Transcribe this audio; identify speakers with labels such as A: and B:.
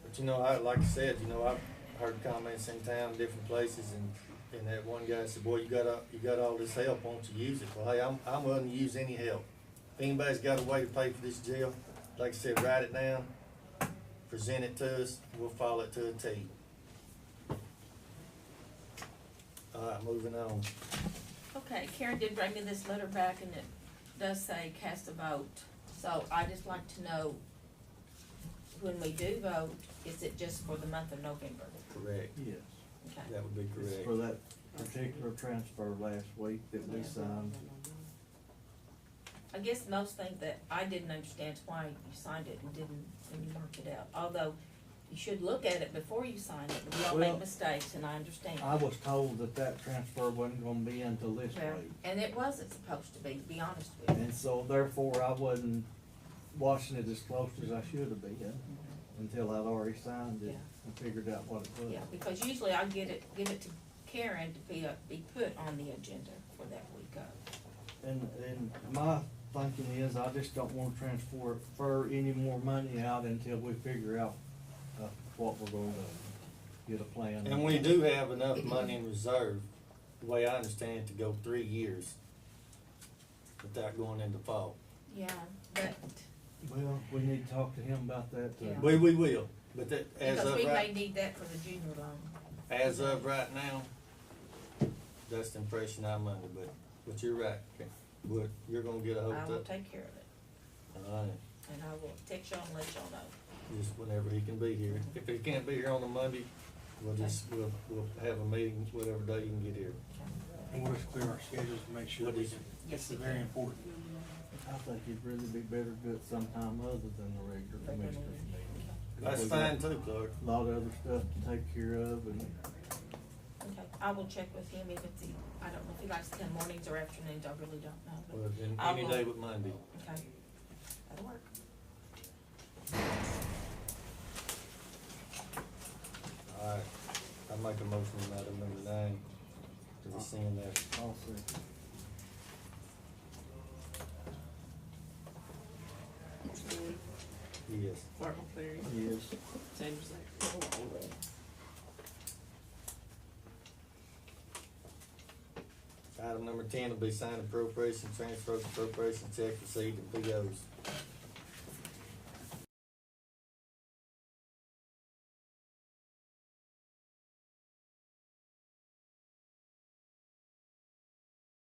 A: you know, I like I said, you know, I've heard comments in town, different places, and and that one guy said, "Boy, you got all, you got all this help. Won't you use it?" Well, hey, I'm I'm willing to use any help. If anybody's got a way to pay for this jail, like I said, write it down, present it to us. We'll follow it to a T. All right, moving on.
B: Okay, Karen did bring me this letter back and it does say cast a vote. So I just like to know, when we do vote, is it just for the month of November?
A: Correct.
C: Yes,
B: Okay.
A: That would be
C: it's
A: correct.
C: for that particular transfer last week that we signed.
B: I guess most thing that I didn't understand is why you signed it and didn't, and you marked it out. Although you should look at it before you sign it. We all
C: Well,
B: make mistakes and I understand.
C: I was told that that transfer wasn't gonna be until this
B: Well,
C: week.
B: And it wasn't supposed to be, to be honest with you.
C: And so therefore, I wasn't watching it as close as I should have been until I'd already signed it
B: Yeah.
C: and figured out what it was.
B: Yeah, because usually I get it, give it to Karen to be, uh, be put on the agenda for that week of.
C: And, and my thinking is, I just don't wanna transfer, fur any more money out until we figure out, uh, what we're gonna do, get a plan.
A: And we do have enough money in reserve, the way I understand it, to go three years without going into fall.
B: Yeah, but,
C: Well, we need to talk to him about that, too.
B: Yeah.
A: We, we will, but that, as
B: because
A: of
B: we may
A: right,
B: need that for the junior loan.
A: as of right now, that's the impression I'm under, but, but you're right. But you're gonna get a
B: I
A: hold
B: will
A: of,
B: take care of it,
A: alright,
B: and I will text y'all and let y'all know.
A: just whenever he can be here. If he can't be here on a Monday, we'll just, we'll, we'll have a meeting whatever day you can get here.
D: And we'll just clear our schedules to make sure
A: What
D: that we
A: is
D: can,
B: it?
D: it's very important.
C: I think it'd really be better to do it sometime other than the regular commissioners meeting.
A: That's
C: We got
A: fine too, Clark.
C: a Lot of other stuff to take care of and
B: Okay, I will check with him if it's, e- I don't know if he likes to come mornings or afternoons, I really don't know, but,
A: Well, then
B: I
A: any
B: will-
A: day but Monday.
B: okay. That'll work.
A: Alright, I make a motion to item number nine, to rescind that.
C: all sorts.
A: Yes.
E: Clark McCleary,
C: Yes,
E: Sanders Zachary.
A: Item number ten will be signed appropriation, transfer appropriation check received and POs.